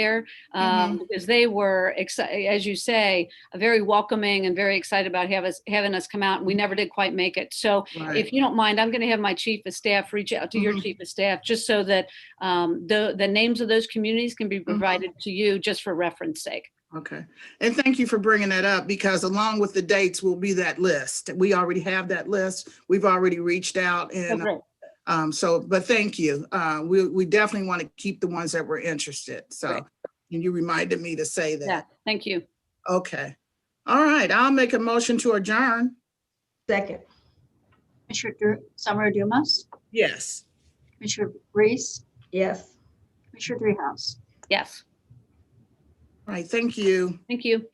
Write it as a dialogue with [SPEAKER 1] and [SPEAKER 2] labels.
[SPEAKER 1] there um,
[SPEAKER 2] Mm-hmm.
[SPEAKER 1] because they were excited, as you say, very welcoming and very excited about have us, having us come out. And we never did quite make it. So if
[SPEAKER 2] Right.
[SPEAKER 1] you don't mind, I'm going to have my chief of staff reach out to your
[SPEAKER 2] Mhm.
[SPEAKER 1] chief of staff just so that um, the the names of those communities can be
[SPEAKER 2] Mm-hmm.
[SPEAKER 1] provided to you just for reference sake.
[SPEAKER 2] Okay. And thank you for bringing that up because along with the dates will be that list. We already have that list. We've already reached out and
[SPEAKER 1] Okay.
[SPEAKER 2] um, so, but thank you. Uh, we, we definitely want to keep the ones that were interested.
[SPEAKER 1] Right.
[SPEAKER 2] So and you reminded me to say
[SPEAKER 1] Yeah,
[SPEAKER 2] that.
[SPEAKER 1] thank you.
[SPEAKER 2] Okay. All right. I'll make a motion to adjourn.
[SPEAKER 3] Second.
[SPEAKER 4] Commissioner Dur- Summer Dumas,
[SPEAKER 2] Yes.
[SPEAKER 4] Commissioner Reese,
[SPEAKER 3] Yes.
[SPEAKER 4] Commissioner Dreehouse.
[SPEAKER 1] Yes,
[SPEAKER 2] All right. Thank you.
[SPEAKER 1] thank you.